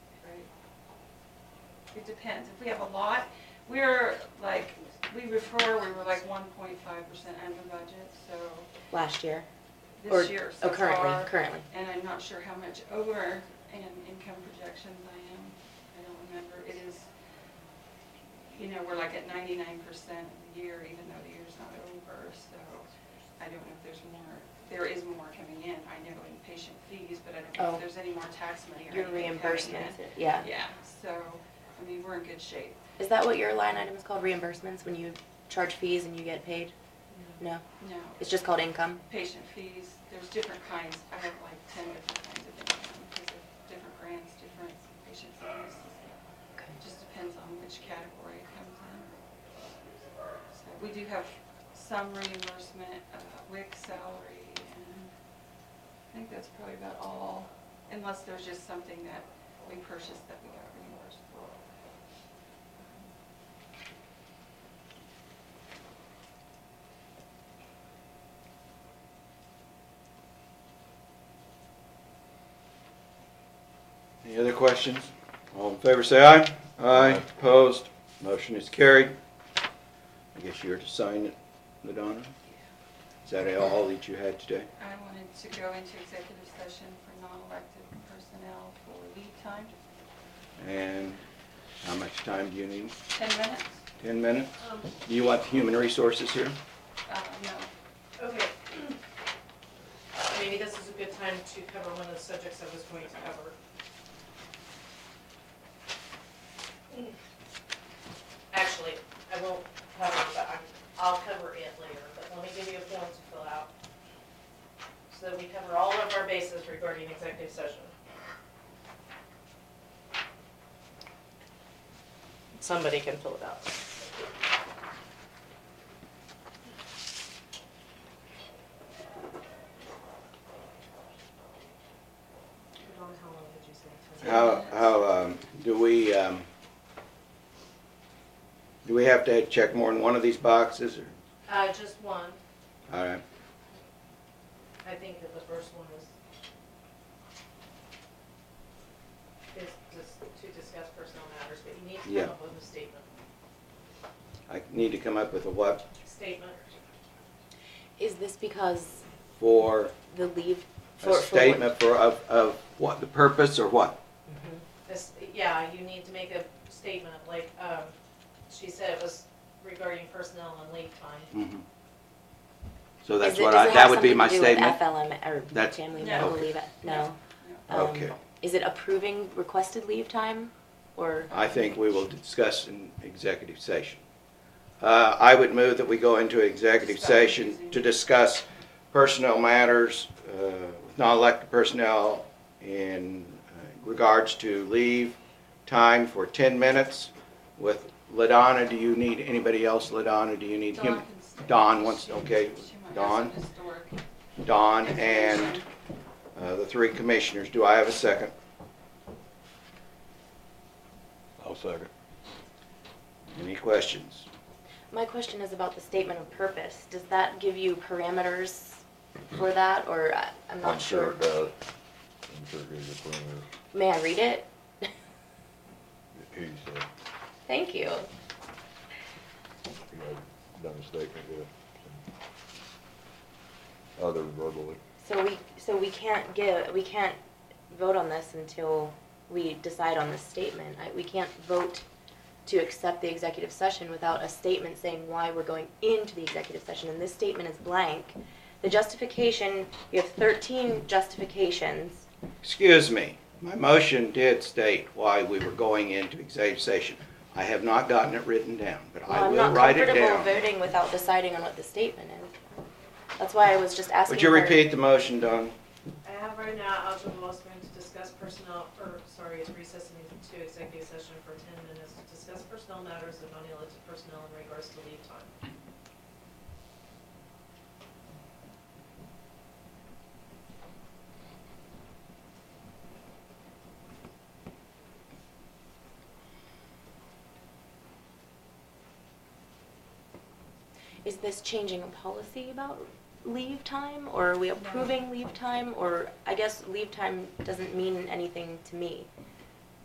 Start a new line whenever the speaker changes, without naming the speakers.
It depends. If we have a lot, we're like, we refer, we were like one point five percent under budget, so
last year? Or-
this year so
Oh, currently,
far.
currently.
And I'm not sure how much over in income projections I am. I don't remember. It is, you know, we're like at ninety-nine percent of the year, even though the year's not over, so I don't know if there's more. There is more coming in. I know in patient fees, but I don't know
Oh.
if there's any more tax money or
Your
anything coming in.
reimbursements, yeah.
Yeah, so, I mean, we're in good shape.
Is that what your line item is called, reimbursements, when you charge fees and you get paid? No,
No,
it's just called income?
patient fees, there's different kinds. I have like ten different kinds of income, because of different grants, different patient fees.
Okay.
It just depends on which category it comes in. So we do have some reimbursement, uh, WIC salary, and I think that's probably about all, unless there's just something that we purchased that we got reimbursed for.
Any other questions? All in favor, say aye. Aye. Opposed? Motion is carried. I guess you're to sign it, Ladonna? Is that all that you had today?
I wanted to go into executive session for non-elected personnel for lead time,
And how much time do you need?
ten minutes.
Ten minutes?
Um,
Do you want the human resources here?
Uh, no,
Okay. Maybe this is a good time to cover one of the subjects I was going to cover. Actually, I won't cover it, but I'm, I'll cover it later, but let me give you a form to fill out. So that we cover all of our bases regarding executive session. Somebody can fill it out. Dawn, how long did you say? it took?
How, how, um, do we, um, do we have to check more than one of these boxes or?
Uh, just one.
All right.
I think that the first one is, is just to discuss personal matters, but you need to
Yeah.
come up with a statement.
I need to come up with a what
Statement,
Is this because
for
the leave? for-
a
for what-
statement for, of, of what, the purpose or what?
this, yeah, you need to make a statement, like, um, she said it was regarding personnel and leave time.
Mhm. So
Is
that's
it-
what
does
I,
it
that
have
would be
something
my
to do with
statement.
FLM, or
That's-
family
No.
medical
Okay.
leave, no? Um,
Okay.
Is it approving requested leave time, or?
I think we will discuss in executive session. Uh, I would move that we go into executive
Stop
session
using-
to discuss personnel matters, uh, with non-elected personnel in uh, regards to leave time for ten minutes with Ladonna, do you need, anybody else, Ladonna, do you need
Dawn
him?
can stay.
Dawn wants,
She-
okay,
she might have
Dawn?
some historic
Don and
information.
uh, the three commissioners. Do I have a second? I'll second. Any questions?
My question is about the statement of purpose. Does that give you parameters for that, or I- I'm not sure?
I'm sure it does. I'm sure it is a permit,
May I read it?
he said,
Thank you.
he had done a statement with some other verbally.
So we, so we can't give, we can't vote on this until we decide on this statement. I- We can't vote to accept the executive session without a statement saying why we're going into the executive session, and this statement is blank. The justification, you have thirteen justifications.
Excuse me, my motion did state why we were going into executive session. I have not gotten it written down, but I
Well,
will write
I'm
it
not comfortable
down.
voting without deciding on what the statement is. That's why I was just asking.
Would you
her-
repeat the motion, Don?
I have right now, I'll do most room to discuss personnel, or, sorry, it's recessing to executive session for ten minutes to discuss personnel matters of non-elected personnel in regards to leave time.
Is this changing a policy about leave time, or are we approving leave time, or, I guess leave time doesn't mean anything to me.